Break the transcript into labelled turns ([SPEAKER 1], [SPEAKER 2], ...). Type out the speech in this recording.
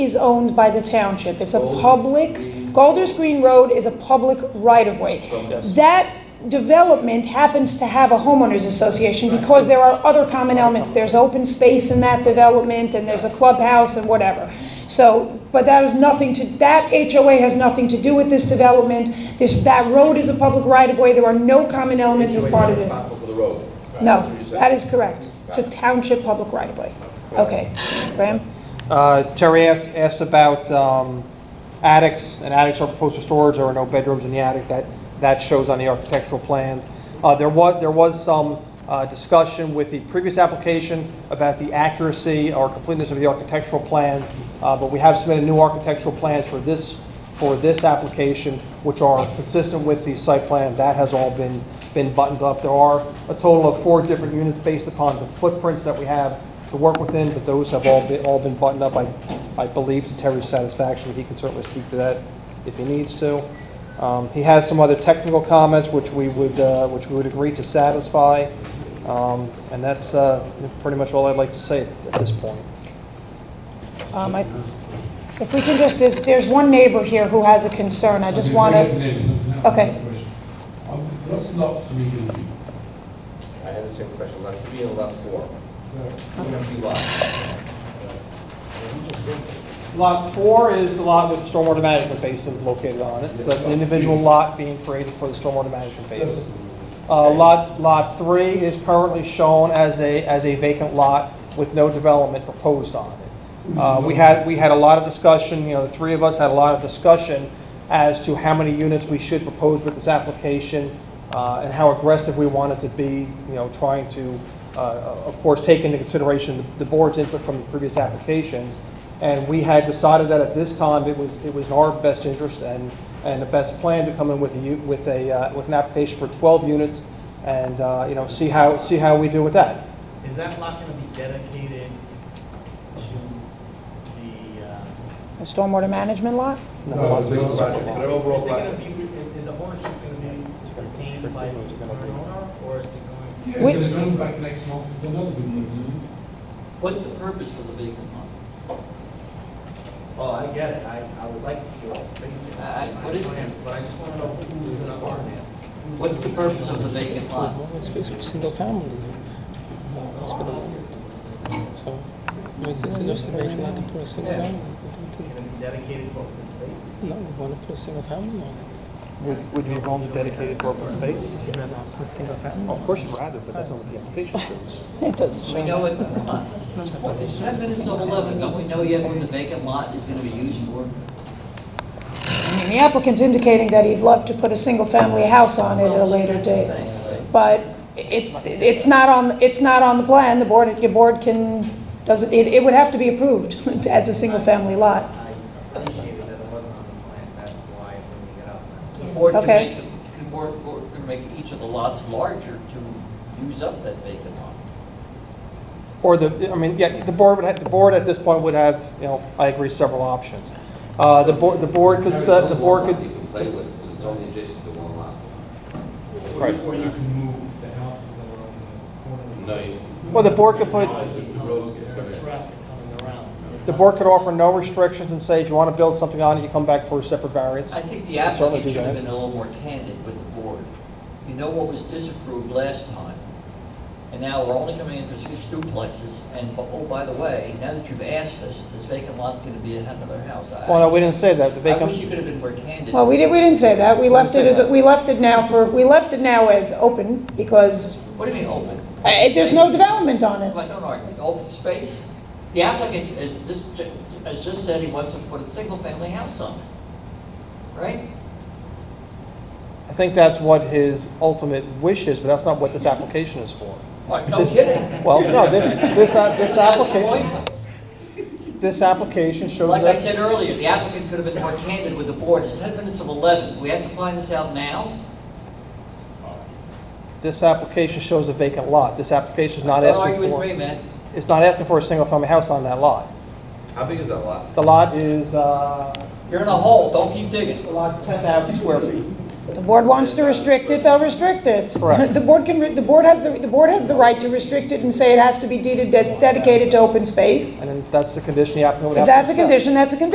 [SPEAKER 1] is owned by the township. It's a
[SPEAKER 2] Golders
[SPEAKER 1] public,
[SPEAKER 2] Green.
[SPEAKER 1] Golders Green Road is a public right-of-way.
[SPEAKER 2] Yes.
[SPEAKER 1] That development happens to have a homeowners association because there are other common elements. There's open space in that development and there's a clubhouse and whatever. So, but that has nothing to, that HOA has nothing to do with this development. This, that road is a public right-of-way. There are no common elements as part of
[SPEAKER 2] You're
[SPEAKER 1] this.
[SPEAKER 2] responsible for the road.
[SPEAKER 1] No,
[SPEAKER 2] That's what you said.
[SPEAKER 1] that is correct. It's a township public right-of-way. Okay, Graham?
[SPEAKER 3] Uh, Terry asked, asked about um, attics, and attics are proposed for storage, there are no bedrooms in the attic, that, that shows on the architectural plans. Uh, There was, there was some uh, discussion with the previous application about the accuracy or completeness of the architectural plans, uh, but we have submitted new architectural plans for this, for this application, which are consistent with the site plan, that has all been, been buttoned up. There are a total of four different units based upon the footprints that we have to work within, but those have all been, all been buttoned up, I, I believe, to Terry's satisfaction, but he can certainly speak to that if he needs to. Um, he has some other technical comments which we would, uh, which we would agree to satisfy, um, and that's, uh, pretty much all I'd like to say at this point.
[SPEAKER 1] Um, I- If we can just, there's, there's one neighbor here who has a concern, I just want to, Okay.
[SPEAKER 4] Um, What's lot three going to be?
[SPEAKER 2] I had the same question, lot three and lot four.
[SPEAKER 4] Uh,
[SPEAKER 2] What if you lot?
[SPEAKER 3] Lot four is the lot with the stormwater management basin located on it, so that's an individual lot being created for the stormwater management basin. Uh, Lot, lot three is currently shown as a, as a vacant lot with no development proposed on it. Uh, We had, we had a lot of discussion, you know, the three of us had a lot of discussion as to how many units we should propose with this application uh, and how aggressive we wanted to be, you know, trying to, uh, of course, take into consideration the- the board's input from the previous applications. And we had decided that at this time, it was, it was in our best interest and, and the best plan to come in with a, u- with a, uh, with an application for 12 units and, uh, you know, see how, see how we do with that.
[SPEAKER 5] Is that lot gonna be dedicated to the, uh,
[SPEAKER 1] a stormwater management lot?
[SPEAKER 4] No, it's
[SPEAKER 2] It's
[SPEAKER 4] not.
[SPEAKER 2] an
[SPEAKER 5] is
[SPEAKER 2] overall
[SPEAKER 5] it
[SPEAKER 2] lot.
[SPEAKER 5] gonna be, is is the ownership oh gonna be retained by the current owner, or is it going,
[SPEAKER 4] Yeah, it's
[SPEAKER 1] We-
[SPEAKER 4] going to come back next month with another one, isn't it?
[SPEAKER 6] What's the purpose for the vacant lot?
[SPEAKER 5] well, Oh, I get it, I, I would like to see all the spaces.
[SPEAKER 6] I- I- Uh, what is it?
[SPEAKER 5] But I just wanna know who's gonna own it.
[SPEAKER 6] What's the purpose of the vacant lot?
[SPEAKER 7] It's basically single family. It's been a- So, I mean, this is just a vacant lot to put a single
[SPEAKER 5] Yeah.
[SPEAKER 7] family.
[SPEAKER 5] It's gonna be dedicated to open space?
[SPEAKER 7] No, we want to put a single family on it.
[SPEAKER 3] Would, would you be willing to dedicate it for open space?
[SPEAKER 7] Put a single family.
[SPEAKER 3] Of course you'd rather, but that's not what the application shows.
[SPEAKER 1] It doesn't
[SPEAKER 6] We know it's a lot. It's ten minutes of eleven, don't we know yet what the vacant lot is gonna be used for?
[SPEAKER 1] I mean, the applicant's indicating that he'd love to put a single-family house on it at a later
[SPEAKER 6] That's the
[SPEAKER 1] date,
[SPEAKER 6] thing, right?
[SPEAKER 1] but it, it's not on, it's not on the plan, the board, your board can, doesn't, it, it would have to be approved as a single-family lot.
[SPEAKER 5] I appreciated that it wasn't on the plan, that's why when we got out.
[SPEAKER 6] The board can
[SPEAKER 1] Okay.
[SPEAKER 6] make, the board, board can make each of the lots larger to use up that vacant lot.
[SPEAKER 3] Or the, I mean, yeah, the board would have, the board at this point would have, you know, I agree, several options. Uh, The board, the board could set, the board could,
[SPEAKER 8] You can play with, because it's only adjacent to one lot.
[SPEAKER 4] Or or you can move the houses that are on the corner.
[SPEAKER 8] No, you.
[SPEAKER 3] well, the board could put,
[SPEAKER 8] The road's gonna-
[SPEAKER 5] Traffic coming around.
[SPEAKER 3] the board could offer no restrictions and say, if you want to build something on it, you come back for a separate variance.
[SPEAKER 6] I think the
[SPEAKER 3] Certainly
[SPEAKER 6] applicant
[SPEAKER 3] do
[SPEAKER 6] should have
[SPEAKER 3] that.
[SPEAKER 6] been a little more candid with the board. You know what was disapproved last time, and now we're only coming in for six duplexes, and, oh, by the way, now that you've asked us, this vacant lot's gonna be another house. I-
[SPEAKER 3] Well, no, we didn't say that, the
[SPEAKER 6] I wish
[SPEAKER 3] vacant,
[SPEAKER 6] you could have been more candid.
[SPEAKER 1] Well, we didn't, we didn't say that, we left it as, we left it now for, we left it now as open, because
[SPEAKER 6] What do you mean open?
[SPEAKER 1] uh, there's no
[SPEAKER 6] Space?
[SPEAKER 1] development on it.
[SPEAKER 6] Like, no, no, open space? The applicant is, this, has just said he wants to put a single-family house on it, right?
[SPEAKER 3] I think that's what his ultimate wish is, but that's not what this application is for.
[SPEAKER 6] Like, no
[SPEAKER 3] This-
[SPEAKER 6] kidding.
[SPEAKER 3] Well, no, this, this, app- this
[SPEAKER 6] That's the
[SPEAKER 3] application,
[SPEAKER 6] point.
[SPEAKER 3] this application shows
[SPEAKER 6] Like I
[SPEAKER 3] that,
[SPEAKER 6] said earlier, the applicant could have been more candid with the board, it's ten minutes of eleven, we have to find this out now?
[SPEAKER 3] this application shows a vacant lot. This application is not
[SPEAKER 6] Don't argue
[SPEAKER 3] asking
[SPEAKER 6] with me,
[SPEAKER 3] for,
[SPEAKER 6] man.
[SPEAKER 3] it's not asking for a single-family house on that lot.
[SPEAKER 2] How big is that lot?
[SPEAKER 3] The lot is, uh,
[SPEAKER 6] You're in a hole, don't keep digging.
[SPEAKER 3] the lot's 10,000 square feet.
[SPEAKER 1] The board wants to restrict it, they'll restrict it.
[SPEAKER 3] Correct.
[SPEAKER 1] The board can, re- the board has, the the board has the right to restrict it and say it has to be deeded as dedicated to open space.
[SPEAKER 3] And then that's the condition the applicant would
[SPEAKER 1] If
[SPEAKER 3] have to
[SPEAKER 1] that's a
[SPEAKER 3] accept.
[SPEAKER 1] condition, that's a condition.